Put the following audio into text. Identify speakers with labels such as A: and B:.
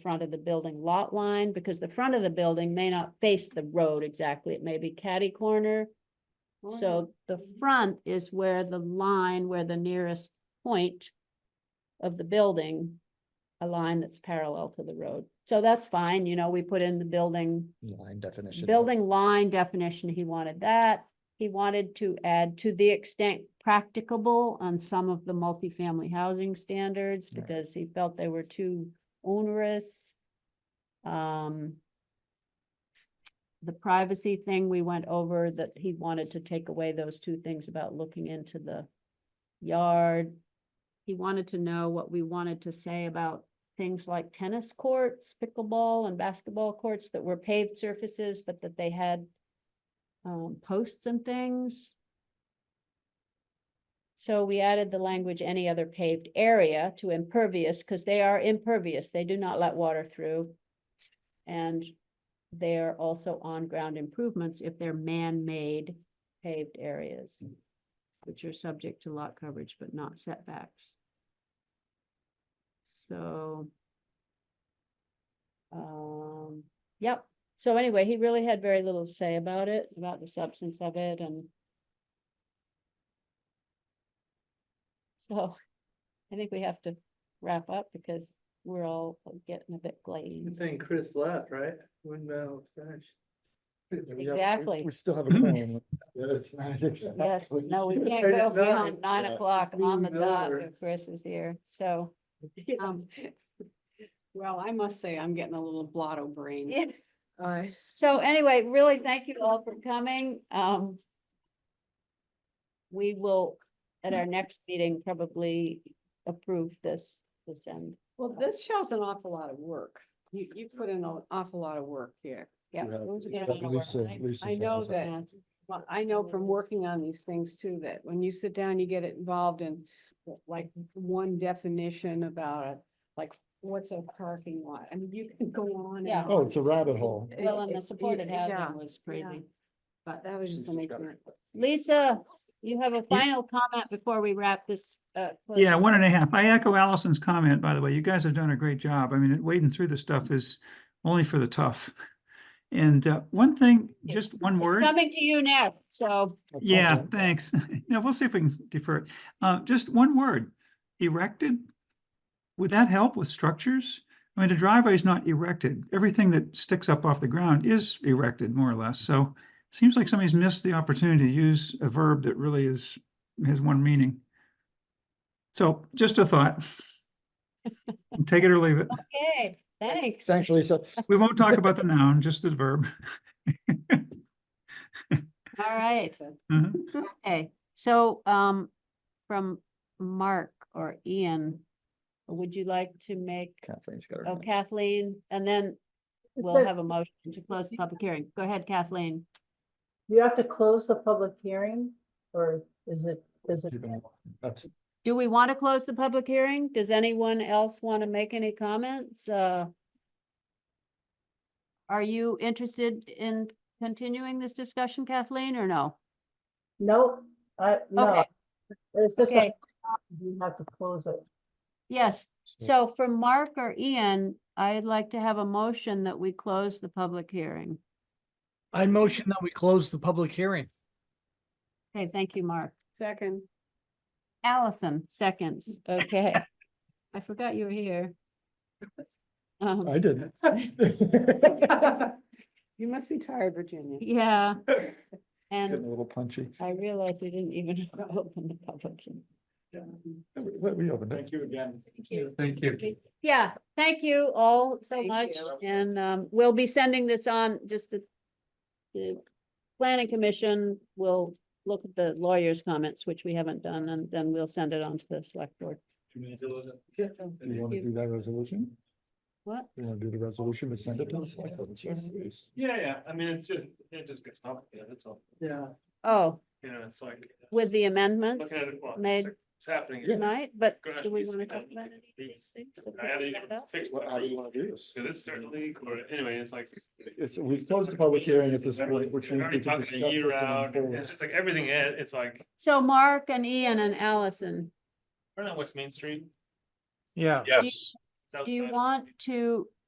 A: front of the building lot line, because the front of the building may not face the road exactly, it may be catty corner.
B: Oh,
A: So the front is where the line, where the nearest point of the building, a line that's parallel to the road. So that's fine, you know, we put in the building,
C: Line definition.
A: building line definition, he wanted that. He wanted to add to the extent practicable on some of the multifamily housing standards
C: Right.
A: because he felt they were too onerous. Um, the privacy thing we went over that he wanted to take away those two things about looking into the yard. He wanted to know what we wanted to say about things like tennis courts, pickleball and basketball courts that were paved surfaces, but that they had um, posts and things. So we added the language, any other paved area to impervious, because they are impervious. They do not let water through. And they are also on-ground improvements if they're man-made paved areas, which are subject to lot coverage but not setbacks. So. Um, yep, so anyway, he really had very little to say about it, about the substance of it and. So, I think we have to wrap up because we're all getting a bit
D: Good
A: glazed.
D: thing Chris left, right? When Mel finished.
A: Exactly.
C: We still have a plan.
A: Yes, no, we can't
D: Right
A: go
D: at nine,
A: beyond nine
C: yeah.
A: o'clock on the
D: Moving
A: dot
D: over.
A: if Chris is here, so. um,
B: Well, I must say, I'm getting a little blotto brain.
A: yeah.
B: Uh,
A: So anyway, really, thank you all for coming, um. We will, at our next meeting, probably approve this, this end.
B: Well, this shows an awful lot of work. You, you put in an awful lot of work here.
A: Yeah.
C: You have-
A: those are
C: you
A: gonna
C: have
A: be our-
C: Lisa-
A: I-
C: Lisa's
B: I know
C: hands up.
B: that-
A: Yeah.
B: Well, I know from working on these things too, that when you sit down, you get involved in like one definition about a, like, what's a parking lot? I mean, you can go on. and
A: Yeah.
B: on.
C: Oh, it's a rabbit hole.
B: It-
A: Well, and the
B: it-
A: supported
B: yeah,
A: housing was crazy.
B: But that was just an example.
A: Lisa, you have a final comment before we wrap this, uh. close
E: Yeah,
A: this
E: one and
A: up?
E: a half. I echo Allison's comment, by the way. You guys have done a great job. I mean, wading through this stuff is only for the tough. And uh, one thing,
A: Yeah.
E: just one
A: It's
E: word.
A: coming to you now, so.
C: That's
E: Yeah,
C: something.
E: thanks. Yeah, we'll see if we can defer it. Uh, just one word, erected. Would that help with structures? I mean, the driveway is not erected. Everything that sticks up off the ground is erected more or less. So it seems like somebody's missed the opportunity to use a verb that really is, has one meaning. So just a thought. Take it or leave it.
A: Okay, thanks.
C: Thanks, Lisa.
E: We won't talk about the noun, just the verb.
A: All right.
B: So-
E: Mhm.
A: Okay, so, um, from Mark or Ian, would you like to make,
C: Kathleen's got her.
A: oh
C: hand.
A: Kathleen, and then we'll have a motion to close the public hearing. Go ahead, Kathleen.
F: You have to close the public hearing, or is it, is it?
C: Keep it up. That's
A: Do we want to close the public hearing? Does anyone else want to make any comments? Uh, are you interested in continuing this discussion, Kathleen, or no?
F: Nope, I, no.
A: Okay.
F: It's just,
A: Okay.
F: a- you have to close it.
A: Yes,
C: So-
A: so for Mark or Ian, I'd like to have a motion that we close the public hearing.
G: I motion that we close the public hearing.
A: Okay, thank you, Mark.
B: Second,
A: Allison, seconds, okay. I forgot you were here. Um,
C: I didn't.
B: you must be tired, Virginia.
A: yeah,
C: Getting
A: and
C: a little punchy.
A: I realized we didn't even open the public. hearing.
C: We- We opened it.
D: you again.
A: Thank you.
D: Thank
A: you. Yeah, thank you all so
B: Thank
A: much,
B: you.
A: and, um, we'll be sending this on, just the the planning commission will look at the lawyer's comments, which we haven't done, and then we'll send it on to the select board.
C: Do you want to
A: you.
C: do that resolution?
A: What?
C: You want to do the resolution to send it to us? Like, oh, geez.
H: Yeah, yeah, I mean, it's just, it just gets complicated, that's all,
D: Yeah.
A: Oh,
H: you know, it's like.
A: with the amendments
H: Looking at it, well,
A: made
H: it's it's happening. it's
A: tonight, but
H: gonna
A: do we
H: be
A: want to
H: something
A: talk about
H: that
A: any of
H: we-
A: these things? that
H: I haven't
A: we
H: even
A: brought up?
H: fixed the
C: Well, How do you want to do this?
H: So this certain league, or anyway, it's like.
C: It's, we've closed the public hearing at this point,
H: Everything's-
C: which
H: it
C: means.
H: Already
C: we can
H: talked a
C: discuss it
H: year
C: going
H: out,
C: forward.
H: it's just like everything, it- it's like,
A: So Mark and Ian and Allison,
H: we're not West Main Street.
G: Yeah.
A: Yes.
H: south
A: do you
H: side.
A: want to